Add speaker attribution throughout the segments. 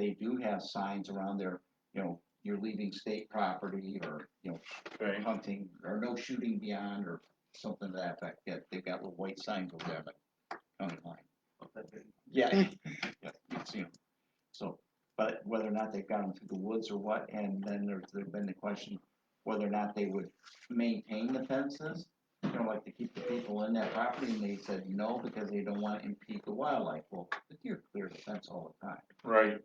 Speaker 1: they do have signs around their, you know, you're leaving state property or, you know,
Speaker 2: Right,
Speaker 1: hunting or no shooting beyond or something to that effect. Yeah, they've got little white signs over there, but county line. Yeah. yeah, You've seen 'em. So, but whether or not they've got them through the woods or what, and then there's, there's been the question whether or not they would maintain the fences, you know, like to keep the people in that property, and they said no, because they don't wanna impede the wildlife. Well, the deer clear the fence all the time.
Speaker 2: right.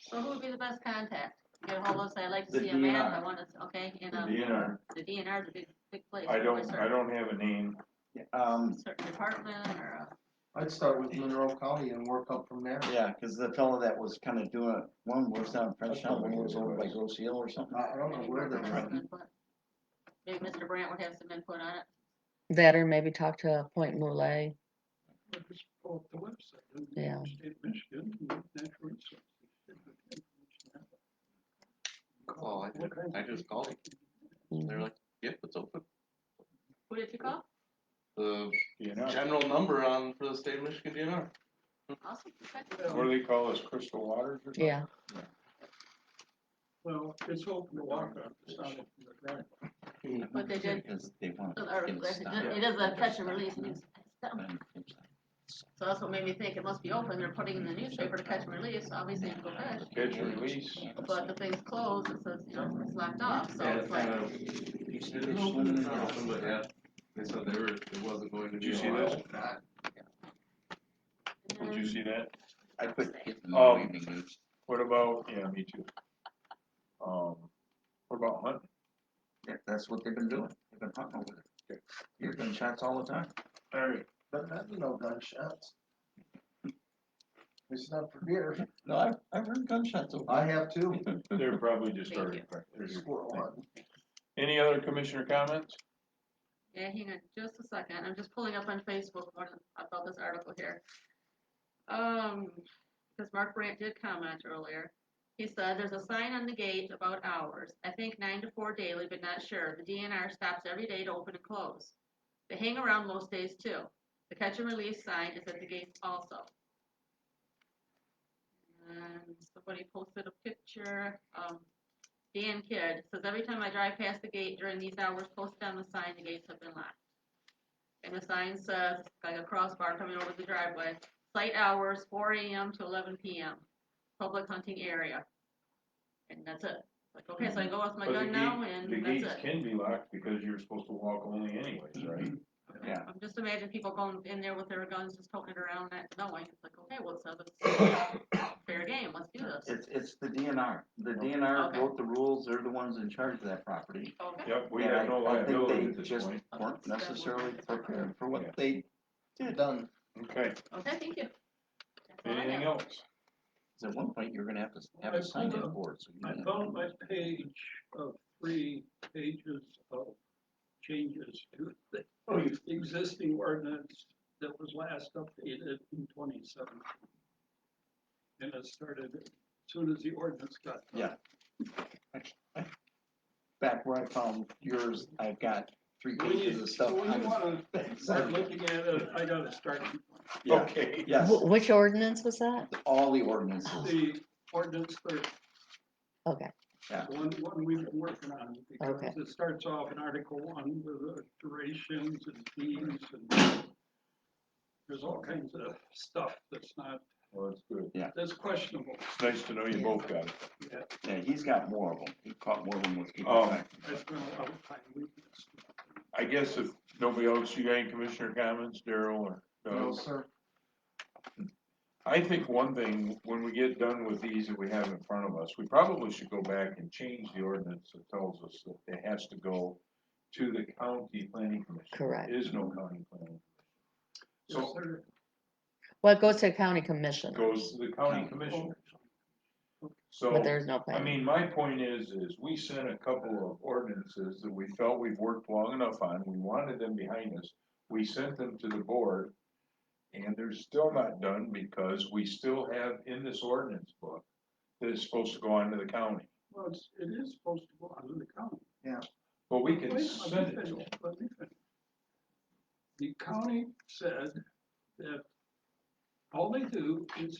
Speaker 3: So who would be the best contact? Get a hold of us, I'd like to
Speaker 2: The
Speaker 3: see a map,
Speaker 2: DNR.
Speaker 3: I want to, okay, and,
Speaker 2: The
Speaker 3: um,
Speaker 2: DNR,
Speaker 3: the DNR is a big, big place.
Speaker 2: I
Speaker 3: for a
Speaker 2: don't, I
Speaker 3: certain-
Speaker 2: don't have a name.
Speaker 1: Yeah, Um,
Speaker 3: Certain department or uh, a.
Speaker 4: I'd start with Monroe County and work up from there.
Speaker 1: yeah, cause the fellow that was kinda doing, one was down in Frenchtown, one was over by Grosse Hill or something.
Speaker 4: I I don't know
Speaker 3: maybe
Speaker 4: where
Speaker 3: Mr.
Speaker 4: they're
Speaker 3: Brandt would put- Maybe Mr. Brandt would have some input on it.
Speaker 5: That or maybe talk to Point Moulet. Yeah.
Speaker 6: Call, I did, I just called, and they were like, yep, it's open.
Speaker 3: Who did you call?
Speaker 6: The
Speaker 2: DNR.
Speaker 6: general number on, for the state of Michigan DNR,
Speaker 3: Awesome. thank
Speaker 2: What
Speaker 3: you.
Speaker 2: do they call us, Crystal Waters or something?
Speaker 5: Yeah.
Speaker 7: Well, it's open to walk on, it's not open to drive.
Speaker 3: What they did-
Speaker 1: Cause they want
Speaker 3: So,
Speaker 1: to
Speaker 3: or,
Speaker 1: get it stopped.
Speaker 3: It is a catch and release. news. So
Speaker 1: Then it's
Speaker 3: that's what made me think it must be open, they're putting in the newspaper to catch and release, obviously you go fish.
Speaker 2: Catch and release.
Speaker 3: But the thing's closed, it says, you know, it's locked off, so
Speaker 6: Yeah,
Speaker 3: it's
Speaker 6: it's
Speaker 3: like,
Speaker 6: kinda-
Speaker 1: like-
Speaker 6: it is open, it's not open, but yeah, they said they were, it wasn't going to
Speaker 2: Did
Speaker 6: be.
Speaker 2: you see
Speaker 6: allowed.
Speaker 2: this? Did you
Speaker 3: mm,
Speaker 2: see that?
Speaker 1: I couldn't get them
Speaker 2: Oh.
Speaker 1: all evening news.
Speaker 2: What about, yeah, me too. Um, what about hunting?
Speaker 1: Yeah, that's what they've been doing. They've been hunting over there. You're getting shots all the time.
Speaker 2: Alright.
Speaker 4: But that'd be no gunshots. It's not for deer.
Speaker 1: No, I've, I've heard gunshots over
Speaker 4: I have two.
Speaker 2: They're probably just
Speaker 3: Thank
Speaker 2: starting.
Speaker 3: you.
Speaker 2: There's-
Speaker 4: Squirrel hunting.
Speaker 2: Any other commissioner comments?
Speaker 3: Yeah, hang on just a second. I'm just pulling up on Facebook what about this article here. Um, because Mark Brandt did comment earlier. He said, there's a sign on the gate about hours. I think nine to four daily, but not sure. The DNR stops every day to open and close. They hang around most days too. The catch and release sign is at the gates also. And somebody posted a picture, um, Dan Kidd says, every time I drive past the gate during these hours posted on the sign, the gates have been locked. And the sign says, like a crossbar coming over the driveway, site hours, four AM to eleven PM, public hunting area. And that's it. Like, okay, so I go with my
Speaker 2: But Mm-hmm. the
Speaker 3: gun now
Speaker 2: gate-
Speaker 3: and
Speaker 2: The
Speaker 3: that's it.
Speaker 2: gates can be locked because you're supposed to walk only anyways,
Speaker 1: Mm-hmm.
Speaker 2: right?
Speaker 1: Yeah.
Speaker 3: I'm just imagine people going in there with their guns, just poking it around, not knowing, it's like, okay, well, so it's fair game, let's do this.
Speaker 1: It's, it's the DNR. The DNR
Speaker 3: Okay.
Speaker 1: wrote the rules. They're the ones in charge of that property.
Speaker 3: Okay,
Speaker 2: Yep, we
Speaker 1: And
Speaker 2: have no
Speaker 1: I- I think
Speaker 2: liability
Speaker 1: they
Speaker 2: at this
Speaker 1: just
Speaker 2: point.
Speaker 1: Weren't necessarily prepared for
Speaker 2: Yeah.
Speaker 1: what they,
Speaker 4: Done.
Speaker 2: Okay,
Speaker 3: okay, thank you. That's all I
Speaker 2: anything
Speaker 3: have.
Speaker 2: else?
Speaker 1: at one point, you're gonna have to have
Speaker 7: I
Speaker 1: a sign
Speaker 7: found
Speaker 1: on
Speaker 7: a-
Speaker 1: board. so you
Speaker 7: I
Speaker 1: can-
Speaker 7: found my page of three pages of changes to the existing ordinance that was last updated in twenty seventeen. And it started as soon as the ordinance got. done.
Speaker 1: Yeah. Back where I found yours, I've got three
Speaker 7: When
Speaker 1: pages
Speaker 7: you,
Speaker 1: of
Speaker 7: so
Speaker 1: stuff.
Speaker 7: when
Speaker 1: on
Speaker 7: you wanna start
Speaker 1: Sorry.
Speaker 7: looking at it, I gotta start
Speaker 1: Yeah,
Speaker 2: Okay.
Speaker 1: yes,
Speaker 5: Wh- Which ordinance was that?
Speaker 1: all the ordinances.
Speaker 7: the ordinance for
Speaker 5: Okay.
Speaker 7: The One, one we've been working on, because
Speaker 5: Okay.
Speaker 7: it starts off in Article One with the durations and fees and there's all kinds of stuff that's not,
Speaker 2: Well, that's good.
Speaker 7: that's questionable.
Speaker 2: It's nice to know you
Speaker 5: Yeah.
Speaker 2: both got it.
Speaker 7: Yeah,
Speaker 1: Yeah, he's got more of them. He caught more of them with people.
Speaker 2: Oh.
Speaker 1: back.
Speaker 7: that's been a lot of time we've been stuck.
Speaker 2: I guess if nobody else, you got any commissioner comments, Daryl or
Speaker 4: No,
Speaker 2: Doug?
Speaker 4: sir.
Speaker 2: I think one thing, when we get done with these that we have in front of us, we probably should go back and change the ordinance that tells us that it has to go to the county planning commission.
Speaker 5: Correct.
Speaker 2: There is no county planning.
Speaker 7: Yes,
Speaker 2: So
Speaker 7: sir.
Speaker 5: Well, it goes to county
Speaker 2: it
Speaker 5: commissioner,
Speaker 2: goes to the county commissioner.
Speaker 5: but
Speaker 2: So,
Speaker 5: there's no
Speaker 2: I
Speaker 5: plan.
Speaker 2: mean, my point is, is we sent a couple of ordinances that we felt we've worked long enough on, we wanted them behind us. We sent them to the board and they're still not done because we still have in this ordinance book that is supposed to go on to the county.
Speaker 7: Well, it's, it is supposed to go under the county.
Speaker 2: But we can
Speaker 7: Wait, let me
Speaker 2: send it to
Speaker 7: finish,
Speaker 2: them.
Speaker 7: let me finish. The county said that all they do is